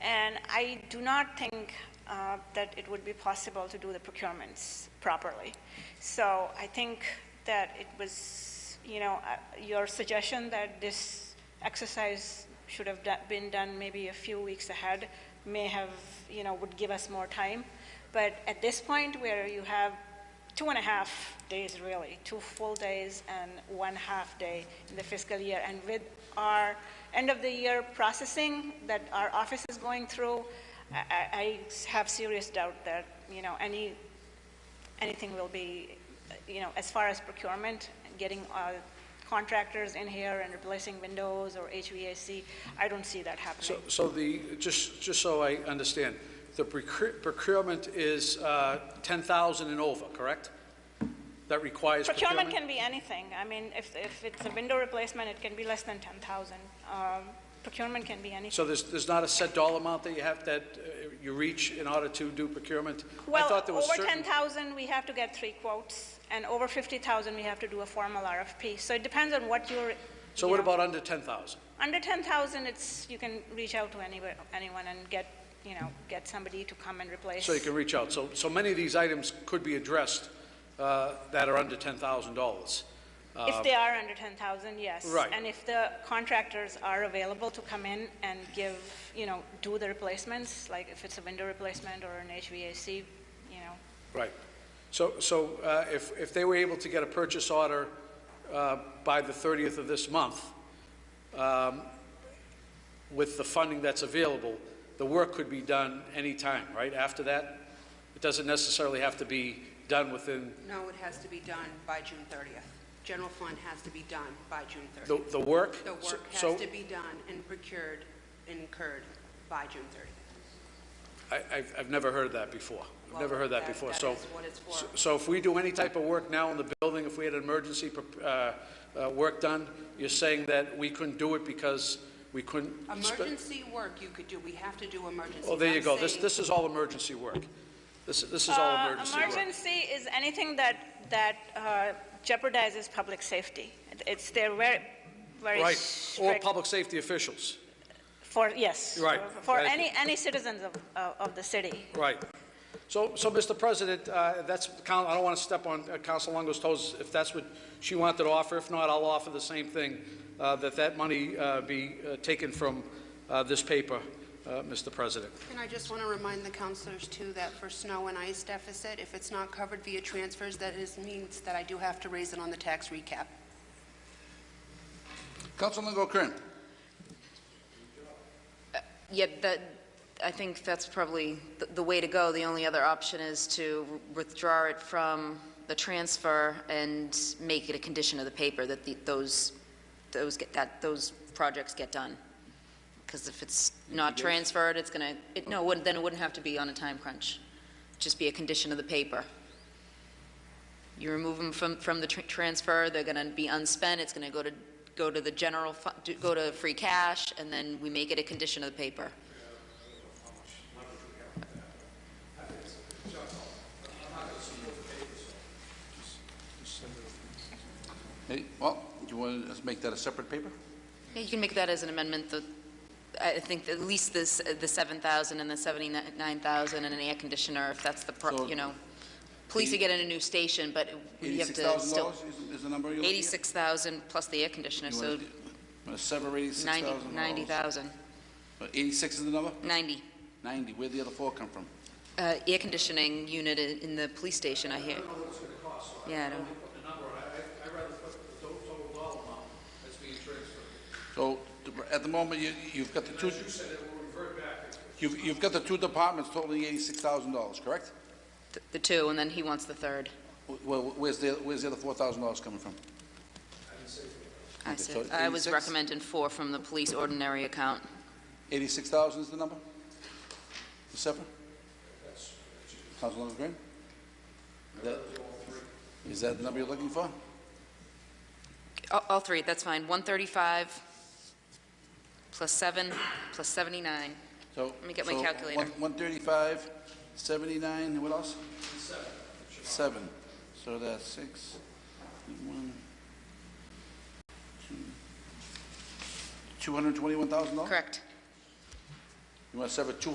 And I do not think uh, that it would be possible to do the procurements properly. So I think that it was, you know, uh, your suggestion that this exercise should have do- been done maybe a few weeks ahead may have, you know, would give us more time. But at this point, where you have two and a half days really, two full days and one half day in the fiscal year. And with our end of the year processing that our office is going through, I, I- I have serious doubt that, you know, any, anything will be, you know, as far as procurement, getting uh, contractors in here and replacing windows or HVAC, I don't see that So, happening. so the, just, just so I understand, the procure- procurement is uh, 10,000 and over, correct? That requires procurement? Procurement can be anything. I mean, if, if it's a window replacement, it can be less than 10,000. Um, Procurement can be anything. So there's, there's not a set dollar amount that you have, that uh, you reach in order to do procurement? I Well, thought there was over certain- 10,000, we have to get three quotes, and over 50,000, we have to do a formal RFP. So it depends on what you're. So you what know. about under 10,000? Under 10,000, it's, you can reach out to anywhere, anyone and get, you know, get somebody to come and replace. So you can reach out. So, so many of these items could be addressed uh, that are under $10,000. If they are under 10,000, yes. Uh, Right. And if the contractors are available to come in and give, you know, do the replacements, like if it's a window replacement or an HVAC, you know, Right. So, so uh, if, if they were able to get a purchase order uh, by the 30th of this month, um, with the funding that's available, the work could be done anytime, right, after that? It doesn't necessarily have to be done within, No, it has to be done by June 30th. General fund has to be done by June the, 30th. the work? The So- work so- has to be done and procured, incurred by June 30th. I, I've, I've never heard of that before. I've never Well, heard that that- before, that so. is what it's for. so- So if we do any type of work now in the building, if we had an emergency, prep- uh, uh, work done, you're saying that we couldn't do it because we couldn't? spe- Emergency work you could do, we have to do emergency. Oh, there you I'm go. This, saying- this is all emergency work. This, this is all Uh, emergency work. Emergency is anything that, that uh, jeopardizes public safety. It's, they're very, very Right, or strict public safety officials. for, yes. Right. for- For Thank any, any citizens of, of- of the city. Right. So, so, Mr. President, uh, that's, Coun- I don't want to step on uh, Council Longo's toes if that's what she wanted to offer. If not, I'll offer the same thing, uh, that that money uh, be uh, taken from uh, this paper, uh, Mr. President. And I just want to remind the counselors too that for snow and ice deficit, if it's not covered via transfers, that is, means that I do have to raise it on the tax recap. Councilmember Kern. Yeah, that, I think that's probably the- the way to go. The only other option is to withdraw it from the transfer and make it a condition of the paper that the- those, those get, that those projects get done. Because if it's not transferred, it's going to, no, it wouldn't- then it wouldn't have to be on a time crunch. Just be a condition of the paper. You remove them from, from the tr- transfer, they're going to be unspent, it's going to go to, go to the general, fu- do- go to free cash, and then we make it a condition of the paper. Hey, well, you want to make that a separate paper? Yeah, you can make that as an amendment, the, I think at least this, the 7,000 and the 79,000 and an air conditioner, if that's the, pro- So- you know. Police are getting a new station, but we have to still. $86,000 is- is the number you're looking at? 86,000 plus the air conditioner, You so want to sever 90, $86,000. 90,000, Uh, 86 is the number? 90. 90, where'd the other four come from? Uh, Air conditioning unit i- in the police station, I hear. Yeah, I don't. So to- at the moment, you- you've got the two... You've you've got the two departments totaling $86,000, correct? th- the two, and then he wants the third. Wh- wh- Where's the where's the other $4,000 coming from? I Okay, said, so I was 86? recommending four from the police ordinary account. 86,000 is the number? The separate? Councilmember Graham? That- Is that the number you're looking for? All, all three, that's fine. 135 plus seven plus 79. So. Let me get my so calculator. one- 135, 79, and what else? Seven. Seven. So that's six, one, two, $221,000? Correct. You must have a two